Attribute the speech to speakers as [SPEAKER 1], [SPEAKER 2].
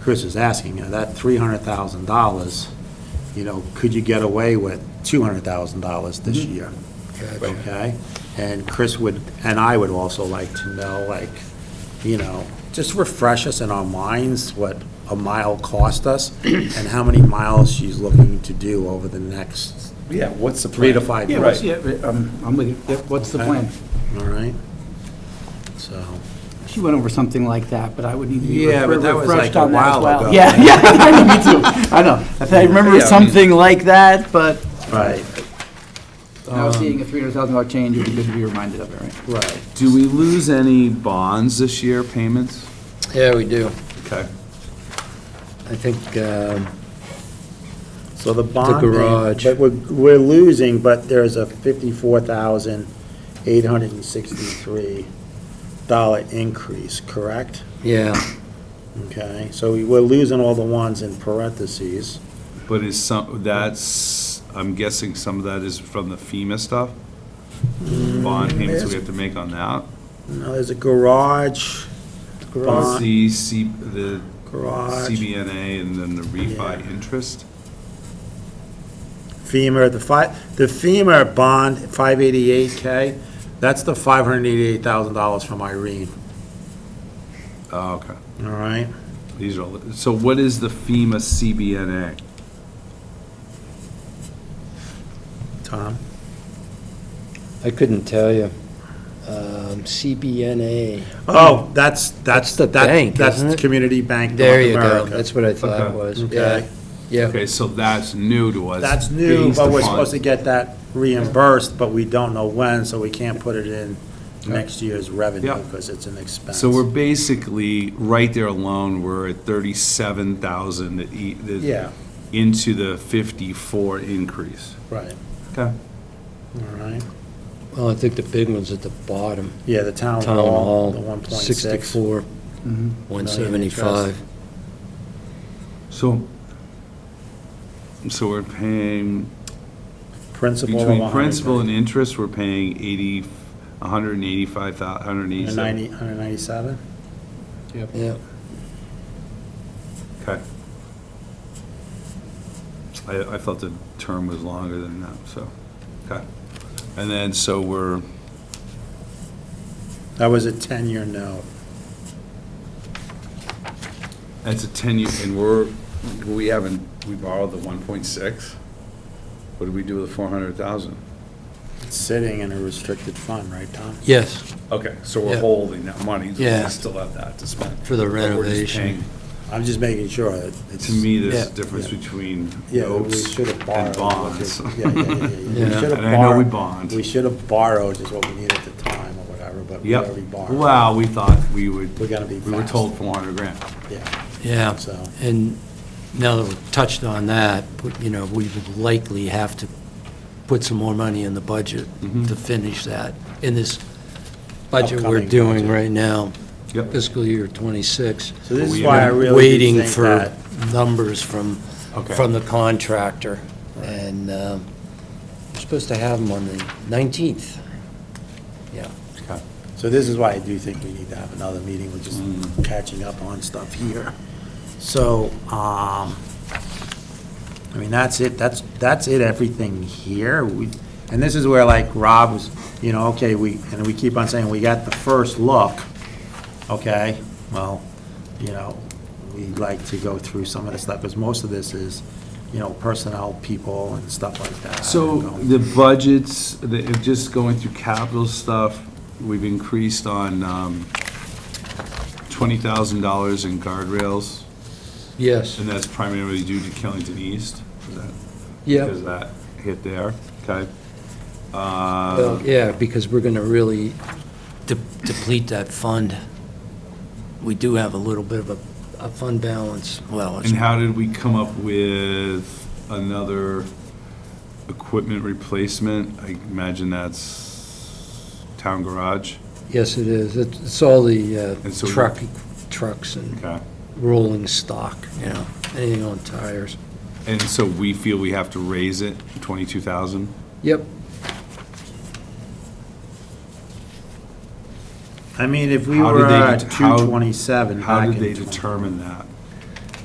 [SPEAKER 1] Chris is asking, you know, that $300,000, you know, could you get away with $200,000 this year? Okay? And Chris would, and I would also like to know, like, you know, just refresh us in our minds what a mile cost us and how many miles she's looking to do over the next,
[SPEAKER 2] Yeah, what's the plan?
[SPEAKER 1] Three to five
[SPEAKER 2] Yeah,
[SPEAKER 1] years.
[SPEAKER 2] what's-
[SPEAKER 1] Right. Uh,
[SPEAKER 2] Yeah, um, I'm with you. Yeah, What's the
[SPEAKER 1] Okay.
[SPEAKER 2] plan?
[SPEAKER 1] all right? So,
[SPEAKER 2] She went over something like that, but I would need to be
[SPEAKER 1] Yeah,
[SPEAKER 2] refre-
[SPEAKER 1] but that was
[SPEAKER 2] refreshed
[SPEAKER 1] like a
[SPEAKER 2] on that as
[SPEAKER 1] while
[SPEAKER 2] well.
[SPEAKER 1] ago.
[SPEAKER 2] Yeah, yeah, me too. I know. I think I remember
[SPEAKER 3] Yeah, I mean-
[SPEAKER 2] something like that, but
[SPEAKER 1] right, um,
[SPEAKER 2] now seeing a $300,000 change, it would be good to be reminded of it, right?
[SPEAKER 1] right.
[SPEAKER 3] Do we lose any bonds this year, payments?
[SPEAKER 4] Yeah, we do.
[SPEAKER 3] Okay.
[SPEAKER 4] I think, um,
[SPEAKER 1] So the bond.
[SPEAKER 4] garage.
[SPEAKER 1] But we're, we're losing, but there's a fifty-four thousand, eight hundred and sixty-three dollar increase, correct?
[SPEAKER 4] yeah,
[SPEAKER 1] Okay, so we- we're losing all the ones in parentheses.
[SPEAKER 3] But is some, that's, I'm guessing some of that is from the FEMA stuff? Bond
[SPEAKER 1] Mm,
[SPEAKER 3] payments we have to make on that?
[SPEAKER 1] Now, there's a garage,
[SPEAKER 3] On
[SPEAKER 1] garage,
[SPEAKER 3] the C, the
[SPEAKER 1] garage,
[SPEAKER 3] CBNA and then the refi
[SPEAKER 1] Yeah.
[SPEAKER 3] interest?
[SPEAKER 1] FEMA, the fi, the FEMA bond, five eighty-eight K, that's the five hundred and eighty-eight thousand dollars from Irene,
[SPEAKER 3] Oh, okay.
[SPEAKER 1] all right?
[SPEAKER 3] These are, all the- so what is the FEMA CBNA?
[SPEAKER 1] Tom?
[SPEAKER 4] I couldn't tell you. Um, CBNA,
[SPEAKER 1] Oh, that's, that's,
[SPEAKER 4] That's the
[SPEAKER 1] that,
[SPEAKER 4] bank,
[SPEAKER 1] that's
[SPEAKER 4] isn't
[SPEAKER 1] the
[SPEAKER 4] it?
[SPEAKER 1] Community Bank
[SPEAKER 4] there
[SPEAKER 1] North
[SPEAKER 4] you go,
[SPEAKER 1] America.
[SPEAKER 4] that's what I thought it
[SPEAKER 3] Okay.
[SPEAKER 4] was.
[SPEAKER 1] Okay.
[SPEAKER 4] Yeah, Yeah.
[SPEAKER 3] Okay, so that's new to us.
[SPEAKER 1] That's new,
[SPEAKER 3] based
[SPEAKER 1] but we're
[SPEAKER 3] upon-
[SPEAKER 1] supposed to get that reimbursed, but we don't know when, so we can't put it in next year's revenue
[SPEAKER 3] Yeah.
[SPEAKER 1] because it's an expense.
[SPEAKER 3] So we're basically, right there alone, we're at thirty-seven thousand e,
[SPEAKER 1] Yeah,
[SPEAKER 3] into the fifty-four increase.
[SPEAKER 1] right,
[SPEAKER 3] Okay.
[SPEAKER 1] all right.
[SPEAKER 4] well, I think the big one's at the bottom,
[SPEAKER 1] Yeah, the town
[SPEAKER 4] Town
[SPEAKER 1] hall, the
[SPEAKER 4] Hall,
[SPEAKER 1] one point six.
[SPEAKER 4] sixty-four,
[SPEAKER 2] Mm-hmm.
[SPEAKER 4] one
[SPEAKER 1] Million
[SPEAKER 4] seventy-five.
[SPEAKER 3] So, so we're paying,
[SPEAKER 1] Principal of
[SPEAKER 3] between principal and
[SPEAKER 1] 100,
[SPEAKER 3] interest, we're paying eighty, a hundred and eighty-five thou, hundred and
[SPEAKER 1] and
[SPEAKER 3] eighty-seven.
[SPEAKER 1] ninety- 197?
[SPEAKER 4] Yeah,
[SPEAKER 3] Okay. I, I thought the term was longer than that, so, okay. And then, so we're,
[SPEAKER 1] That was a ten-year note.
[SPEAKER 3] that's a ten-year, and we're, we haven't, we borrowed the one point six? What did we do with the four hundred thousand?
[SPEAKER 1] It's sitting in a restricted fund, right, Tom?
[SPEAKER 4] yes,
[SPEAKER 3] Okay, so
[SPEAKER 4] Yeah.
[SPEAKER 3] we're holding that money, we
[SPEAKER 4] Yeah.
[SPEAKER 3] still have that to spend.
[SPEAKER 4] for the
[SPEAKER 3] But we're just
[SPEAKER 4] renovation.
[SPEAKER 3] paying
[SPEAKER 1] I'm just making sure that it's.
[SPEAKER 3] To me, there's a
[SPEAKER 4] Yeah.
[SPEAKER 3] difference between
[SPEAKER 1] Yeah, we
[SPEAKER 3] notes
[SPEAKER 1] should have
[SPEAKER 3] and
[SPEAKER 1] borrowed.
[SPEAKER 3] bonds.
[SPEAKER 1] Yeah, yeah, yeah, yeah. We
[SPEAKER 4] Yeah.
[SPEAKER 1] should have
[SPEAKER 3] And I know we
[SPEAKER 1] borrowed-
[SPEAKER 3] bond.
[SPEAKER 1] We should have borrowed is what we needed at the time or whatever, but we already
[SPEAKER 3] Yep.
[SPEAKER 1] borrowed.
[SPEAKER 3] Wow, we thought we would,
[SPEAKER 1] We gotta be
[SPEAKER 3] we were
[SPEAKER 1] fast.
[SPEAKER 3] told 400 grand.
[SPEAKER 1] Yeah,
[SPEAKER 4] yeah.
[SPEAKER 1] so,
[SPEAKER 4] And now that we've touched on that, put- you know, we would likely have to put some more money in the budget
[SPEAKER 3] Mhm.
[SPEAKER 4] to finish that, in this budget we're
[SPEAKER 1] Upcoming
[SPEAKER 4] doing
[SPEAKER 1] budget.
[SPEAKER 4] right now,
[SPEAKER 3] Yep.
[SPEAKER 4] fiscal year '26.
[SPEAKER 1] so this
[SPEAKER 3] But
[SPEAKER 1] is
[SPEAKER 3] we
[SPEAKER 1] why I
[SPEAKER 3] haven't-
[SPEAKER 1] really do
[SPEAKER 4] Waiting
[SPEAKER 1] think
[SPEAKER 4] for
[SPEAKER 1] that.
[SPEAKER 4] numbers from,
[SPEAKER 3] Okay.
[SPEAKER 4] from the contractor, and um, we're supposed to have them on the 19th. Yeah,
[SPEAKER 3] Okay.
[SPEAKER 1] So this is why I do think we need to have another meeting, we're just
[SPEAKER 3] Mm.
[SPEAKER 1] catching up on stuff here. So, um, I mean, that's it, that's, that's it, everything here. We And this is where like Rob was, you know, okay, we, and we keep on saying, we got the first look, okay? Well, you know, we like to go through some of the stuff, because most of this is, you know, personnel people and stuff like that.
[SPEAKER 3] So the budgets, the- just going through capital stuff, we've increased on um, $20,000 in guardrails,
[SPEAKER 4] yes,
[SPEAKER 3] and that's primarily due to Killington East. Is that-
[SPEAKER 4] yeah,
[SPEAKER 3] Because that hit there, okay?
[SPEAKER 4] well,
[SPEAKER 3] Uh,
[SPEAKER 4] yeah, because we're going to really de- deplete that fund. We do have a little bit of a, a fund balance, well, it's
[SPEAKER 3] And how did we come up with another equipment replacement? I imagine that's town garage.
[SPEAKER 4] Yes, it is. It's it's all the uh,
[SPEAKER 3] And so-
[SPEAKER 4] truck, trucks and
[SPEAKER 3] Okay.
[SPEAKER 4] rolling stock, you know, anything on tires.
[SPEAKER 3] And so we feel we have to raise it, 22,000?
[SPEAKER 4] Yep.
[SPEAKER 1] I mean, if we
[SPEAKER 3] How did
[SPEAKER 1] were
[SPEAKER 3] they
[SPEAKER 1] at
[SPEAKER 3] det- how-
[SPEAKER 1] 227
[SPEAKER 3] How
[SPEAKER 1] back
[SPEAKER 3] did
[SPEAKER 1] in
[SPEAKER 3] they
[SPEAKER 1] 20
[SPEAKER 3] determine that?